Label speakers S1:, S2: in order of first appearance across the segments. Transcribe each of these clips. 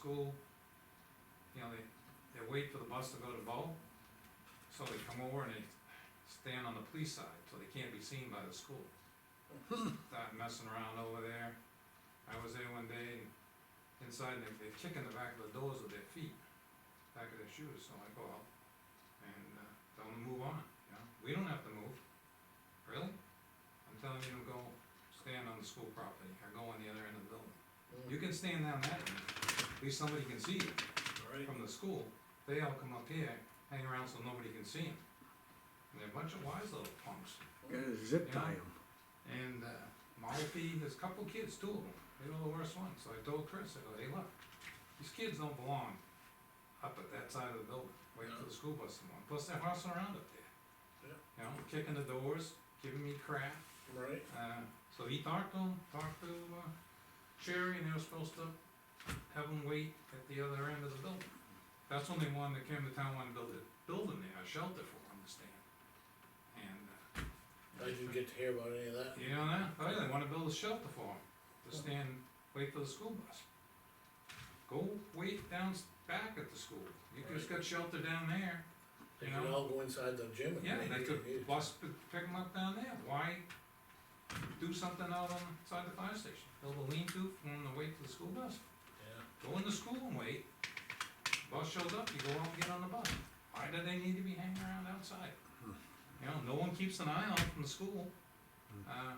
S1: school, you know, they, they wait for the bus to go to Bow, so they come over and they stand on the police side, so they can't be seen by the school. Start messing around over there, I was there one day, and inside, and they, they kicking the back of the doors with their feet, back of their shoes, so I go out and, uh, tell them to move on, you know, we don't have to move, really? I'm telling you to go stand on the school property, or go on the other end of the building. You can stand down that end, at least somebody can see you
S2: Alright,
S1: from the school, they all come up here, hang around so nobody can see them. And they're a bunch of wise little punks,
S3: Gotta zip tie 'em.
S1: and, uh, Malfi, there's a couple kids, two of them, they were the worst ones, so I told Chris, I go, hey, look, these kids don't belong up at that side of the building, waiting for the school bus to come on, plus they're horsing around up there.
S2: Yeah.
S1: You know, kicking the doors, giving me crap,
S2: right,
S1: uh, so he talked to him, talked to, uh, Sherry, and they were supposed to have him wait at the other end of the building. That's when they wanted, came to town, wanted to build a building there, a shelter for him to stay in. And, uh.
S2: I didn't get to hear about any of that.
S1: You know, that? oh, yeah, they wanna build a shelter for him, to stand, wait for the school bus. Go wait down s- back at the school, you just got shelter down there,
S2: They
S1: You
S2: could
S1: know?
S2: all go inside the gym and.
S1: yeah, they
S2: make
S1: could
S2: it.
S1: bus, p- pick them up down there, why do something out on the side of the fire station? Build a lean-to from the wait for the school bus,
S2: Yeah,
S1: go in the school and wait, bus shows up, you go out and get on the bus. Why do they need to be hanging around outside? You know, no one keeps an eye on them from the school. Uh,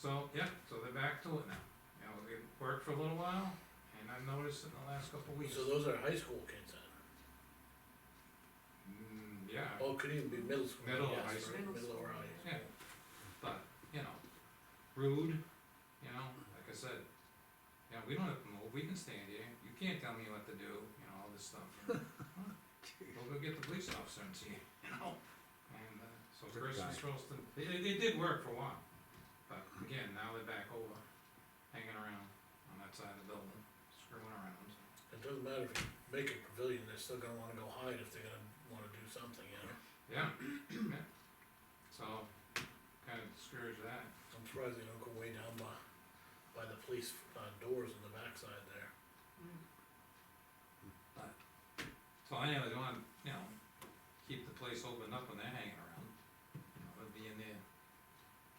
S1: so, yeah, so they're back to it now, you know, it worked for a little while, and I've noticed in the last couple of weeks,
S2: so those are high school kids then,
S1: mm, yeah,
S2: oh, could even be middle school.
S1: Middle or
S2: yes,
S1: high
S2: right,
S1: school.
S2: Middle or high.
S1: Yeah. But, you know, rude, you know, like I said, you know, we don't have to move, we can stand here, you can't tell me what to do, you know, all this stuff. you know. We'll go get the police officer and see, you know, and, uh, so
S3: Good
S1: Chris
S3: guy.
S1: was supposed to, it, it, it did work for a while, but again, now they're back over, hanging around on that side of the building, screwing around.
S2: It doesn't matter if you make a pavilion, they're still gonna wanna go hide if they're gonna wanna do something, you know?
S1: Yeah, yeah, so, kinda discouraged that.
S2: I'm surprised they don't go way down by, by the police, uh, doors on the backside there.
S4: Oh,
S1: So anyway, they wanna, you know, keep the place open up when they're hanging around, you know, they'll be in there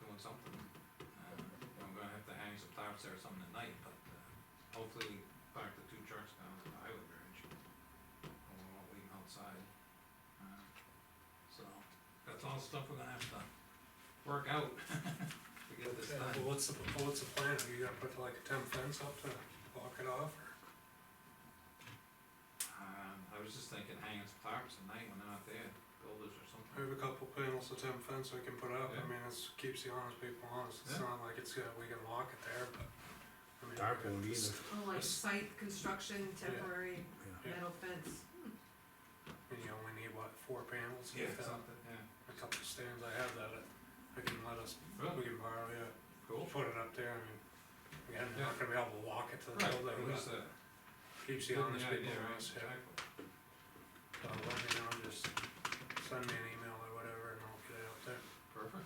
S1: doing something. Uh, I'm gonna have to hang some tops there or something tonight, but, uh, hopefully park the two trucks down at the highway bridge. And we won't leave 'em outside, uh, so, that's all stuff we're gonna have to work out to get this
S5: Well,
S1: done.
S5: what's the, well, what's the plan? Are you gonna put like a temp fence up to block it off?
S1: Um, I was just thinking hanging some tarps at night when they're not there, builders or something.
S5: I have a couple panels of temp fence we can put up.
S1: Yeah.
S5: I mean, it keeps the honest people honest. It's
S1: Yeah.
S5: not like it's, uh, we can lock it there, but. I mean,
S3: Dark won't either.
S4: Well, like site construction, temporary
S5: Yeah.
S4: metal fence.
S5: And you only need what, four panels?
S1: Yeah,
S5: If that-
S1: something, yeah,
S5: A couple of stands, I have that. uh, I can let us, we
S1: really,
S5: can borrow, yeah,
S1: cool.
S5: put it up there. I mean, again, we're
S1: Yeah.
S5: not gonna be able to walk it to the
S1: Right,
S5: building,
S1: it was,
S5: but
S1: uh,
S5: keeps the
S1: getting
S5: honest
S1: the idea,
S5: people
S1: right,
S5: honest, yeah.
S1: exactly.
S5: So let me know, just send me an email or whatever and I'll get it out there.
S1: Perfect.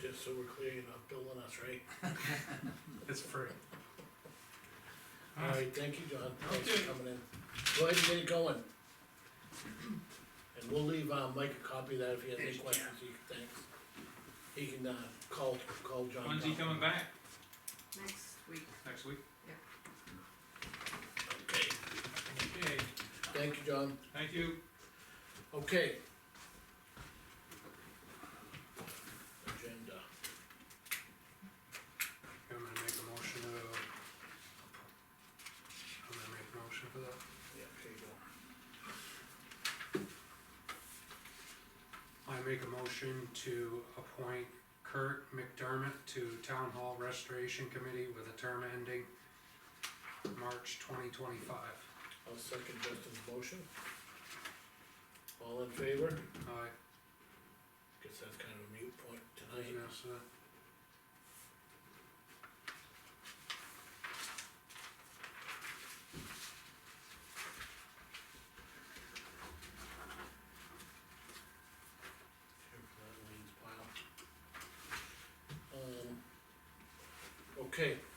S2: Just so we're clear, you're not building us, right?
S5: It's free.
S2: Alright, thank you, John, thanks
S1: Okay.
S2: for coming in. Go ahead and get it going. And we'll leave, uh Mike a copy of that if he has any questions, he can, thanks. He can, uh, call, call John.
S1: When's he
S2: Donovan.
S1: coming back?
S4: Next week,
S1: Next week?
S2: Okay,
S1: Okay,
S2: thank you, John.
S1: thank you.
S2: Okay. Agenda.
S5: I'm gonna make a motion to. I'm gonna make a motion for that.
S2: Yeah, here you go.
S5: I make a motion to appoint Kurt McDermott to Town Hall Restoration Committee with a term ending March twenty twenty-five.
S2: I'll second Justin's motion. All in favor?
S5: Aye,
S2: Guess that's kind of a mute point
S5: yes,
S2: tonight.
S5: uh,
S2: Here, that Lean's pile. Um, okay, Uh,